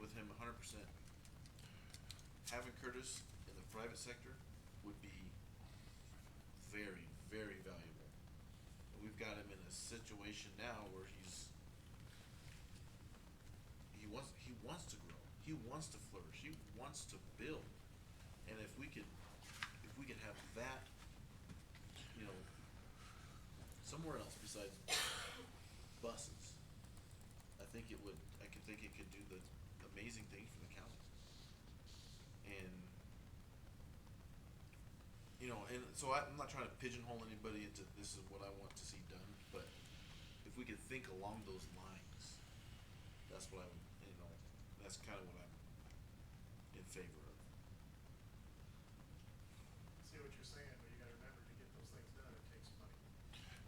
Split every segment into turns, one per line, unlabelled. with him hundred percent. Having Curtis in the private sector would be very, very valuable. And We've got him in a situation now where he's he wants he wants to grow. He wants to flourish. He wants to build. And if we could if we could have that you know somewhere else besides buses, I think it would I could think it could do the amazing thing for the county. And you know, and so I, I'm not trying to pigeonhole anybody into this is what I want to see done, but if we could think along those lines, that's what I would, you know, that's kind of what I'm in favor of.
see what you're saying, but you gotta remember to get those things done, it takes money.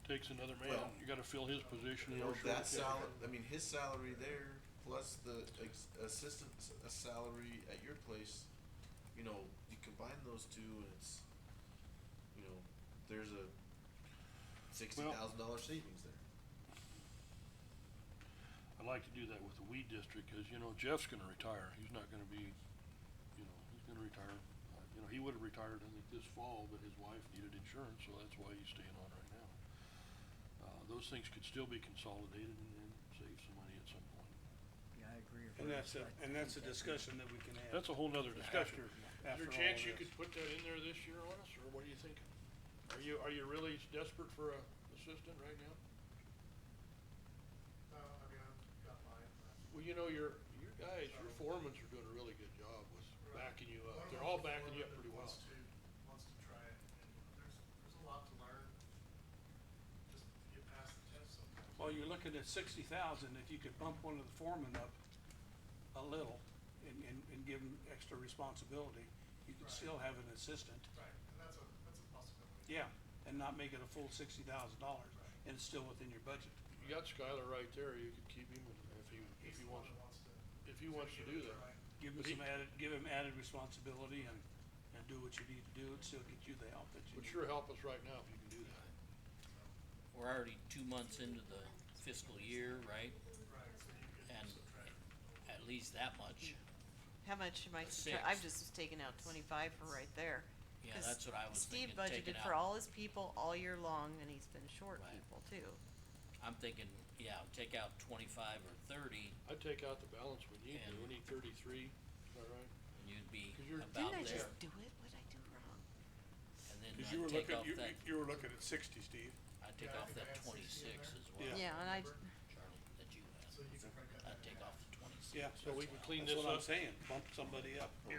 Takes another man,
Well,
you gotta fill his position
You
in
know,
order to.
that salary, I mean, his salary there, plus the ex- assistant's uh, salary at your place, you know, you combine those two and it's, you know, there's a sixty thousand dollar savings there.
I'd like to do that with the weed district, cause you know Jeff's gonna retire, he's not gonna be, you know, he's gonna retire. Uh, You know, he would've retired, I think, this fall, but his wife needed insurance, so that's why he's staying on right now. Uh, those things could still be consolidated and then save some money at some point.
Yeah, I agree. with
And
her.
that's a,
I
and that's a
think that-
discussion that we can have.
That's a whole nother discussion. Is there a
After all
chance
of
you
this.
could put that in there this year on us, or what are you thinking? Are you, are you really desperate for a assistant right now?
No, I mean, I'm not lying, but
Well, you know, your, your guys, your foremans are doing a really good job with
Right.
backing you
one of
up. They're
them's
all
a
backing you
foreman
up
that
pretty well.
Wants to, wants to try it, and there's, there's a lot to learn, just get past the test sometimes.
Well, you're looking at sixty thousand, if you could bump one of the foremen up a little and, and, and give him extra responsibility, you could
Right.
still have an assistant.
Right, and that's a, that's a possibility.
Yeah, and not make it a full sixty thousand dollars,
Right.
and it's still within your budget.
You got Skylar right there. You could keep him and if he, if
He's the
he
one
wants,
that wants to.
if he wants to
give
do
it a
that.
try.
Give him
But he-
some added, give him added responsibility and, and do what you need to do, and still get you the help that you
Would
need.
sure help us right now if you can do that.
We're already two months into the fiscal year, right?
Right, so you could
And-
subtract.
At least that much.
How much am
A
I subtract, I've
sixth.
just taken out twenty-five for right there.
Yeah,
'Cause
that's what I was thinking,
Steve
take it
budgeted for
out.
all his people all year long and he's been short
Right.
people too.
I'm thinking, yeah, take out twenty-five or thirty
I'd take out the balance we need. to.
And-
We need thirty-three, is that right?
and you'd be
'Cause you're-
about
Didn't I
there.
just do it? What'd I do wrong?
And then I'd take off that,
were looking at sixty, Steve.
I'd
Yeah,
take
I
off
think I
that
had 60 in
twenty-six
there.
as well,
Yeah, and I,
Remember?
Charlie, that you
So
had.
you could break that.
I'd
in
take
half.
off the twenty-six.
Yeah,
So we can clean
that's
this
what I'm
up.
saying, bump somebody up,
You could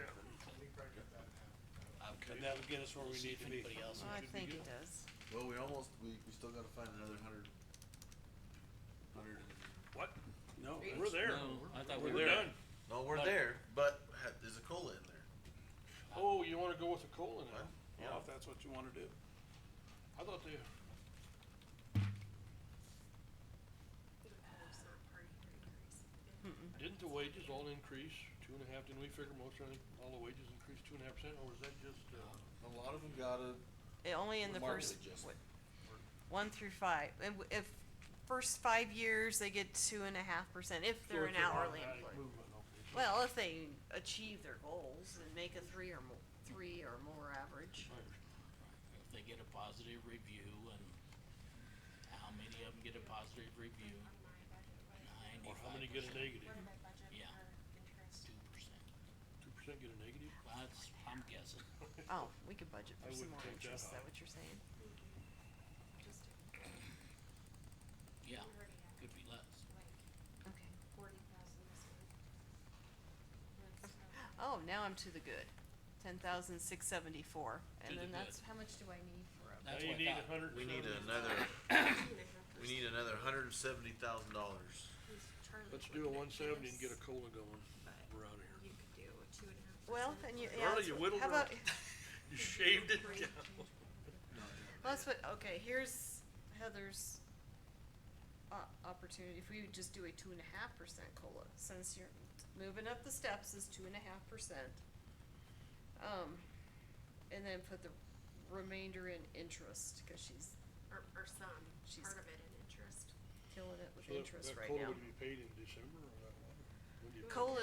break that in half.
I would
and
take-
that'll get us where we
see
need
if
to be.
anybody else
well, oh, I
should be
think it
doing it.
does.
Well, we almost, we, we still gotta find another hundred, hundred,
What?
No, that's-
We're there.
No, I thought we
We're
were.
done.
no, we're
Like-
there, but ha- there's a cola in there.
Oh, you wanna go with the cola now?
Well,
you know, if that's what you wanna do.
I thought they, didn't the wages all increase two and a half? Didn't we figure most, of the- all the wages increased two and a half percent or was that just, uh?
A lot of them gotta,
It only in the
Remarkably
first,
just-
what, one through five. And w- if, first five years, they get two and a half percent if they're
or
an
it's an
hourly
automatic
employee.
movement, okay, so-
Well, if they achieve their goals and make a three or mo- three or more average.
If they get a positive review and how many of them get a positive review?
Or how many get a
Ninety-five
negative?
Yeah.
interest.
two percent.
Two percent get a negative?
That's, I'm guessing.
Oh, we could budget
I
for some
wouldn't
more
take that
interest, is
high.
that what you're saying?
Just
Yeah,
We already have.
could be less.
like
Okay.
forty thousand this week. That's,
Oh,
um,
now I'm to the good. Ten thousand six
To
seventy-four, and
the
then
good.
that's, how much do I need for a?
That's
Now
what I
you need
thought.
a hundred.
we
and
need
seventy.
another,
two and a half
we need
percent.
another hundred and seventy thousand dollars.
He's Charlie
Let's
would
do a
make
one seventy and get a
this,
cola going.
but
We're out of here.
You could do a two and a half.
Well,
percent
and you,
for
yeah,
Well,
that's
you
wh-
whittled
how
her
about,
You shaved it
rate
down.
change.
let's put, okay, here's Heather's o- opportunity, if we would just do a two and a half percent COLA, since you're moving up the steps is two and a half percent. Um, and then put the remainder in interest, cause she's
Or, or some,
She's-
part of it in interest.
killing it
So
with
that-
interest
that
right
cola
now.
would be paid in December or that one? When do you pay it?
COLA